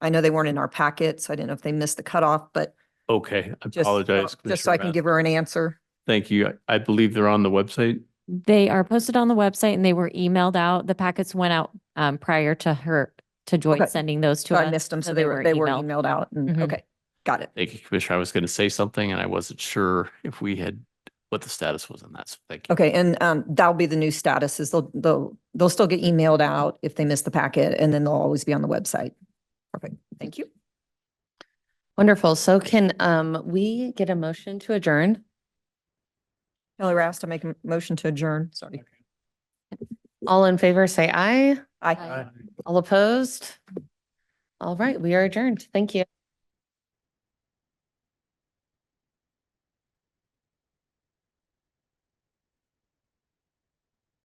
I know they weren't in our packet, so I didn't know if they missed the cutoff, but Okay, I just, apologize. just so Commissioner I can Rath. give her an answer. Thank you. I- I believe they're on the website. They are posted on the website and they were emailed out. The packets went out um prior to her, to Okay. Joyce sending those to So us. I missed them, so they were, they were emailed Mm-hmm. out and, Mhm. okay, got it. Thank you, Commissioner. I was going to say something and I wasn't sure if we had, what the status was on that. So thank you. Okay, and um, that'll be the new status is they'll, they'll, they'll still get emailed out if they miss the packet and then they'll always be on the website. Perfect, thank you. Wonderful. So can um we get a motion to adjourn? Kelly Rast, I make a motion to adjourn, sorry. All in favor, say aye. Aye. Aye. All opposed? All right, we are adjourned. Thank you.